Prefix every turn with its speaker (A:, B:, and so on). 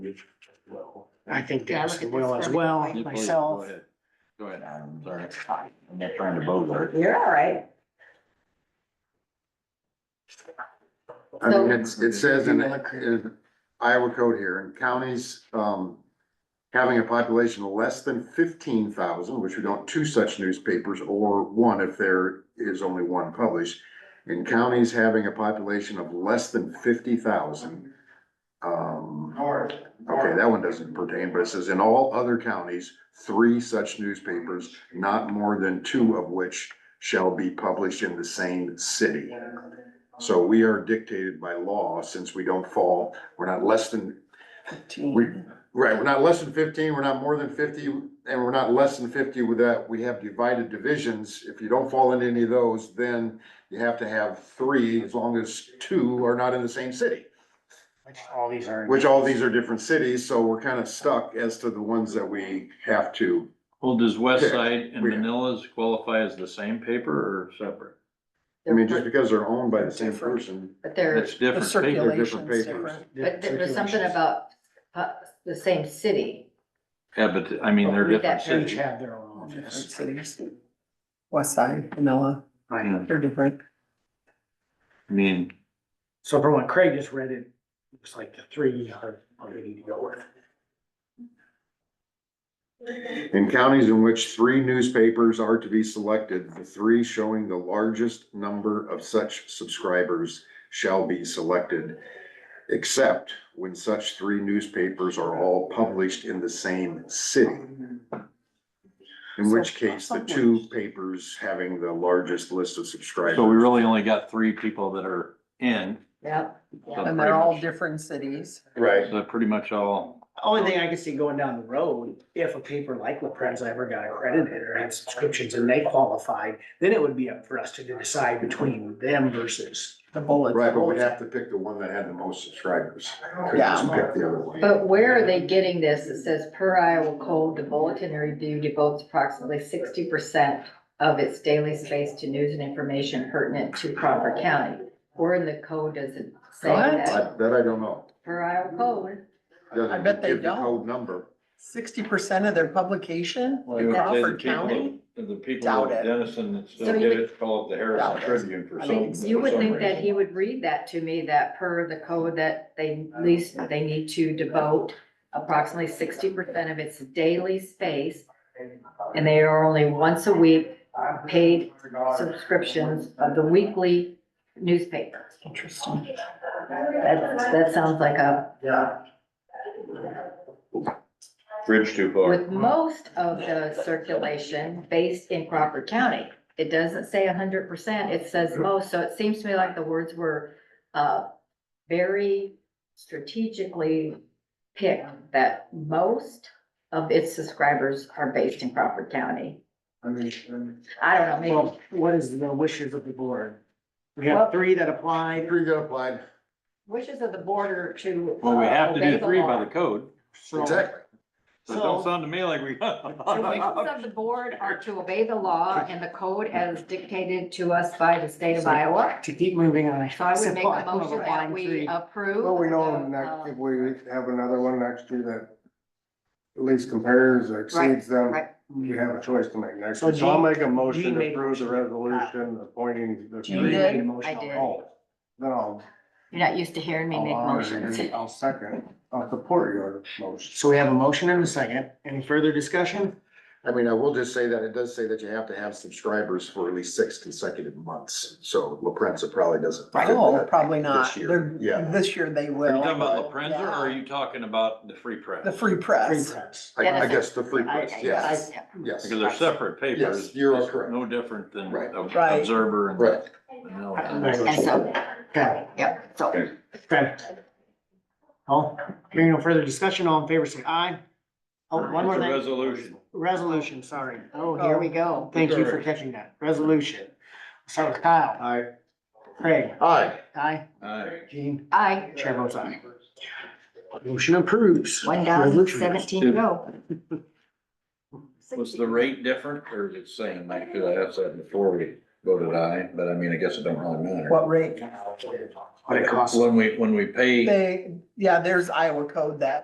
A: mortgage as well.
B: I think
C: Yeah, I
B: that's
C: look at
B: will
C: this
B: as
C: perfect
B: well,
C: white.
A: Please, go
B: myself.
A: ahead. Go ahead.
D: Um,
A: Sorry.
D: it's fine. I'm not trying to bother.
C: You're all right.
E: I mean,
C: So-
E: it's, it says in in Iowa code here, in counties, um, having a population less than fifteen thousand, which we don't, two such newspapers, or one if there is only one published. In counties having a population of less than fifty thousand, um, okay, that one doesn't pertain, but it says in all other counties, three such newspapers, not more than two of which shall be published in the same city. So we are dictated by law, since we don't fall, we're not less than, we, right, we're not less than fifteen, we're not more than fifty, and we're not less than fifty with that, we have divided divisions. If you don't fall into any of those, then you have to have three, as long as two are not in the same city.
B: Which all these are.
E: Which all these are different cities, so we're kind of stuck as to the ones that we have to.
F: Well, does West Side and
E: Yeah.
F: Manila's qualify as the same paper or separate?
E: I mean, just because they're owned by the same person,
C: But they're,
F: It's different
E: they're
F: paper.
E: different papers.
C: but there was something about uh, the same city.
F: Yeah, but I mean, they're
C: Read
F: different
C: that
B: Each
F: cities.
B: have their
G: Oh,
B: own office.
G: cities. West Side, Manila,
F: I
G: they're different.
F: mean,
B: So from what Craig just read, it looks like the three are, are ready to go with.
E: In counties in which three newspapers are to be selected, the three showing the largest number of such subscribers shall be selected, except when such three newspapers are all published in the same city. In which case, the two papers having the largest list of subscribers.
F: so we really only got three people that are in.
C: Yep.
F: so
G: And they're all
F: pretty
G: different cities.
E: Right.
F: much- So pretty much all,
B: Only thing I could see going down the road, if a paper like La Prensa ever got accredited or had subscriptions and they qualified, then it would be up for us to decide between them versus.
G: The bullet.
E: Right, but we'd have to pick the one that had the most subscribers. Couldn't just Pick the other one.
C: But where are they getting this? It says per Iowa code, the bulletin review devotes approximately sixty percent of its daily space to news and information pertinent to Crawford County. Where in the code does it say
G: What?
C: that?
E: I- That I don't know.
C: Per Iowa code.
E: Doesn't
G: I bet they
E: give the
G: don't.
E: Code number.
G: Sixty percent of their publication,
F: well, you would say the
G: Crawford County?
F: people, of- the people of
G: Doubt it.
F: Dennison that
C: So
F: still get
C: you would-
F: it, call it the Harrison
G: Doubt it.
F: Tribune for
G: I
F: some.
G: mean,
F: for
C: You would
F: some
C: think that
F: reason.
C: he would read that to me, that per the code that they least, they need to devote approximately sixty percent of its daily space. And they are only once a week paid subscriptions of the weekly newspaper.
G: Interesting.
C: That, that sounds like a,
F: Bridge too far.
C: with most of the circulation based in Crawford County. It doesn't say hundred percent, it says
F: Mm-hmm.
C: most, so it seems to me like the words were, uh, very strategically picked that most of its subscribers are based in Crawford County. I don't know, maybe,
B: Well, what is the wishes of the board? We have three that applied,
E: Three that applied.
C: wishes of the border to. uh,
F: Well, we have to
C: obey
F: do
C: the
F: three by
C: law.
F: the code,
B: so.
F: so it don't
B: So-
F: sound to me like we.
C: The wishes of the board are to obey the law and the code as dictated to us by the state of Iowa.
B: To keep moving on.
C: So I would make
B: Supply-
C: a motion that
B: line
C: we uh,
B: three.
C: approve.
H: Well, we know
C: the,
H: next,
C: uh,
H: if we have another one next year that at least compares or exceeds them,
C: right.
H: you have a choice to make next
B: So
H: year. So I'll
B: Gene-
H: make a
B: Gene
H: motion to
B: made
H: approve the
B: motion.
H: resolution appointing the
G: Gene
B: You
H: three.
B: made a
G: did?
B: motion.
C: I did.
H: Oh, Then I'll.
C: You're not used to hearing me make
H: I'll honor it
C: motions.
H: and I'll second, I'll support your motion.
B: So we have a motion and a second. Any further discussion?
E: I mean, I will just say that it does say that you have to have subscribers for at least six consecutive months. So La Prensa probably doesn't. fit
G: Oh,
E: that.
G: probably not.
E: This year,
G: They're,
E: yeah.
G: this year they
F: Are
G: will.
F: you talking about La Prensa or are
G: Yeah.
F: you talking about the Free Press?
G: The Free
B: Free
G: Press.
B: press.
E: I, I guess the free press,
C: Okay,
E: yes,
C: yeah.
E: yes.
F: Because they're separate papers.
E: Yes, you are
F: It's
E: correct.
F: No different than
E: Right.
F: ob-
G: Right.
F: Observer and.
E: Right.
F: Manila.
C: And so,
B: Okay,
C: yep, so.
B: okay. All, hearing no further discussion, all in favor, say aye. Oh, one more
F: It's a
B: thing.
F: Resolution.
B: Resolution, sorry.
C: Oh, here we go.
B: Thank you for catching that. Resolution. Start with Kyle.
E: Aye.
B: Craig.
E: Aye.
B: Aye.
F: Aye.
B: Gene.
C: I,
B: Chair votes aye. Motion approves.
C: one thousand seventeen to go.
F: Was the rate different or is it same? I could have asked that before we voted aye, but I mean, I guess it don't really matter.
G: What rate?
B: What it costs.
F: When we, when we pay.
G: They, yeah, there's Iowa code that